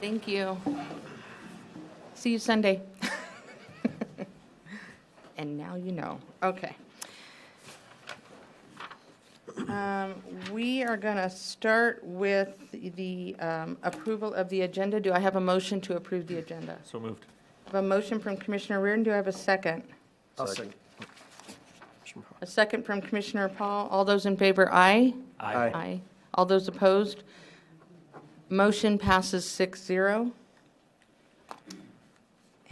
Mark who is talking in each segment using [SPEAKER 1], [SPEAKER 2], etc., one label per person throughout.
[SPEAKER 1] Thank you. See you Sunday. And now you know. Okay. Um, We are going to start with the um, approval of the agenda. Do I have a motion to approve the agenda?
[SPEAKER 2] So moved.
[SPEAKER 1] I have a motion from Commissioner Reardon. Do I have a second?
[SPEAKER 2] I'll second.
[SPEAKER 1] A second from Commissioner Paul. All those in favor, aye?
[SPEAKER 2] Aye.
[SPEAKER 1] Aye. All those opposed? Motion passes 6-0.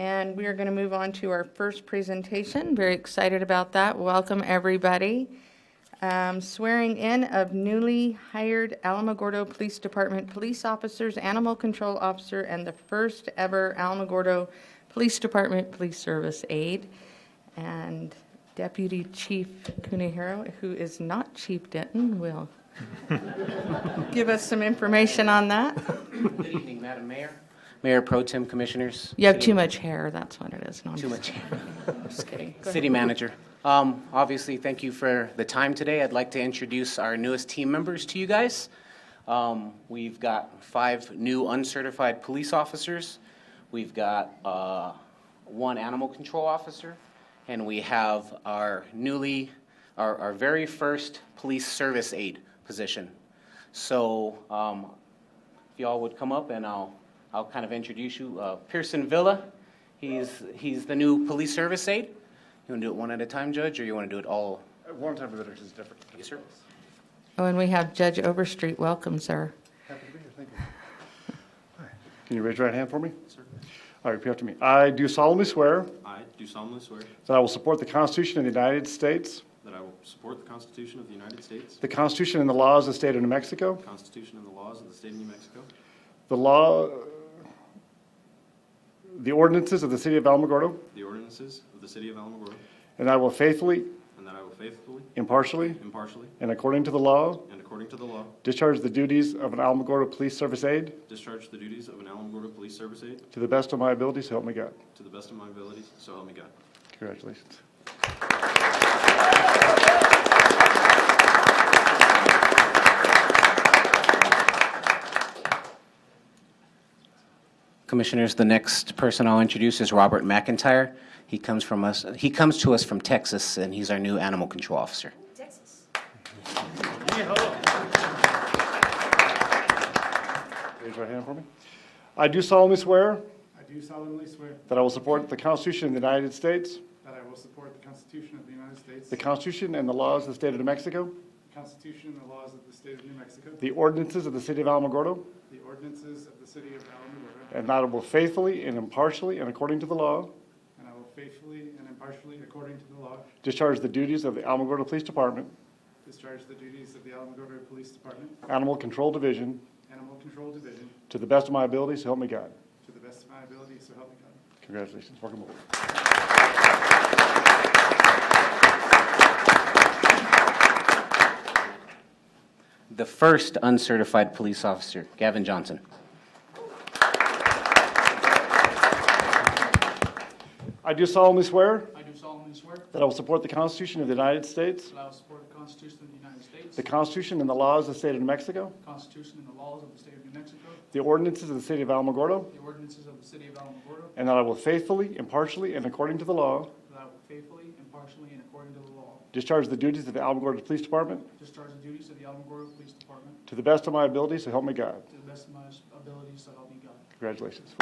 [SPEAKER 1] And we are going to move on to our first presentation. Very excited about that. Welcome, everybody. Um, Swearing in of newly hired Alamogordo Police Department Police Officers, Animal Control Officer, and the first-ever Alamogordo Police Department Police Service Aide, and Deputy Chief Kunihiro, who is not Chief Denton, will give us some information on that.
[SPEAKER 3] Good evening, Madam Mayor. Mayor Pro Tem Commissioners.
[SPEAKER 1] You have
[SPEAKER 3] City-
[SPEAKER 1] too much hair, that's what it is. No, I'm
[SPEAKER 3] Too
[SPEAKER 1] just-
[SPEAKER 3] much.
[SPEAKER 1] just kidding. Go ahead.
[SPEAKER 3] City Manager. Um, Obviously, thank you for the time today. I'd like to introduce our newest team members to you guys. Um, We've got five new uncertified police officers. We've got uh, one animal control officer. And we have our newly, our our very first police service aide position. So um, if y'all would come up and I'll, I'll kind of introduce you. Uh, Pearson Villa, he's, he's the new police service aide. You want to do it one at a time, Judge, or you want to do it all?
[SPEAKER 4] Uh, One time visitor is different.
[SPEAKER 3] Yes, sir.
[SPEAKER 1] Oh, and we have Judge Overstreet. Welcome, sir.
[SPEAKER 4] Happy to be here, thank you. Hi. Can you raise your right hand for me? Certainly. All right, repeat after me. I do solemnly swear
[SPEAKER 5] I do solemnly swear
[SPEAKER 4] that I will support the Constitution of the United States,
[SPEAKER 5] that I will support the Constitution of the United States,
[SPEAKER 4] the Constitution and the laws of the state of New Mexico,
[SPEAKER 5] the Constitution and the laws of the state of New Mexico,
[SPEAKER 4] the law, the ordinances of the city of Alamogordo,
[SPEAKER 5] the ordinances of the city of Alamogordo,
[SPEAKER 4] and I will faithfully,
[SPEAKER 5] and that I will faithfully,
[SPEAKER 4] impartially,
[SPEAKER 5] impartially,
[SPEAKER 4] and according to the law
[SPEAKER 5] and according to the law,
[SPEAKER 4] discharge the duties of an Alamogordo Police Service aide
[SPEAKER 5] discharge the duties of an Alamogordo Police Service aide
[SPEAKER 4] to the best of my ability, so help me God.
[SPEAKER 5] to the best of my abilities, so help me God.
[SPEAKER 4] Congratulations.
[SPEAKER 3] Commissioners, the next person I'll introduce is Robert McIntyre. He comes from us, he comes to us from Texas, and he's our new animal control officer.
[SPEAKER 4] Raise your right hand for me. I do solemnly swear
[SPEAKER 6] I do solemnly swear
[SPEAKER 4] That I will support the Constitution of the United States,
[SPEAKER 6] that I will support the Constitution of the United States,
[SPEAKER 4] the
[SPEAKER 6] the
[SPEAKER 4] Constitution and the laws of the State of New Mexico,
[SPEAKER 6] Constitution and the laws of the state of New Mexico,
[SPEAKER 4] the ordinances of the City of Alamogordo,
[SPEAKER 6] the ordinances of the city of Alamogordo,
[SPEAKER 4] and that I will faithfully and impartially and according to the law
[SPEAKER 6] and I will faithfully and impartially, according to the law,
[SPEAKER 4] discharge the duties of the Alamogordo Police Department,
[SPEAKER 6] discharge the duties of the Alamogordo Police Department,
[SPEAKER 4] Animal Control Division,
[SPEAKER 6] Animal Control Division,
[SPEAKER 4] to the best of my abilities, so help me God.
[SPEAKER 6] to the best of my ability, so help me God.
[SPEAKER 4] Congratulations. Welcome aboard.
[SPEAKER 3] The first uncertified police officer, Gavin Johnson.
[SPEAKER 4] I do solemnly swear
[SPEAKER 7] I do solemnly swear
[SPEAKER 4] that I will support the Constitution of the United States,
[SPEAKER 7] that I will support the Constitution of the United States,
[SPEAKER 4] the
[SPEAKER 7] the
[SPEAKER 4] Constitution and the laws of the State of New Mexico,
[SPEAKER 7] Constitution and the laws of the state of New Mexico,
[SPEAKER 4] the ordinances of the City of Alamogordo,
[SPEAKER 7] the ordinances of the city of Alamogordo,
[SPEAKER 4] and that I will faithfully, impartially, and according to the law
[SPEAKER 7] that I will faithfully, impartially, and according to the law
[SPEAKER 4] discharge the duties of the Alamogordo Police Department
[SPEAKER 7] discharge the duties of the Alamogordo Police Department
[SPEAKER 4] To the best of my ability, so help me God.
[SPEAKER 7] to the best of my abilities, so help me God.
[SPEAKER 4] Congratulations.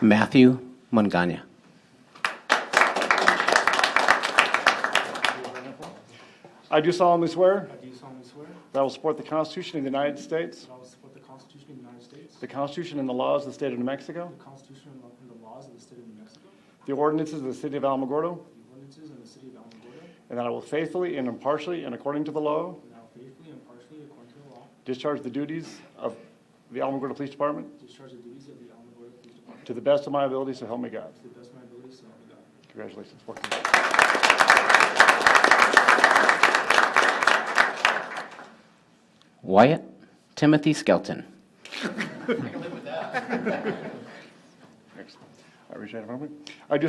[SPEAKER 3] Matthew Mungania.
[SPEAKER 4] I do solemnly swear
[SPEAKER 7] I do solemnly swear that
[SPEAKER 4] that I will support the Constitution of the United States,
[SPEAKER 7] I will support the Constitution of the United States,
[SPEAKER 4] the Constitution and the laws of the State of New Mexico,
[SPEAKER 7] the Constitution and the- and the laws of the state of New Mexico,
[SPEAKER 4] the ordinances of the City of Alamogordo,
[SPEAKER 7] the ordinances of the city of Alamogordo,
[SPEAKER 4] and that I will faithfully and impartially and according to the law
[SPEAKER 7] and I will faithfully, impartially, according to the law
[SPEAKER 4] discharge the duties of the Alamogordo Police Department
[SPEAKER 7] discharge the duties of the Alamogordo Police Department
[SPEAKER 4] to the best of my ability, so help me God.
[SPEAKER 7] to the best of my abilities, so help me God.
[SPEAKER 4] Congratulations.
[SPEAKER 3] Wyatt Timothy Skelton.
[SPEAKER 4] Excellent. All right, raise your hand for me. I do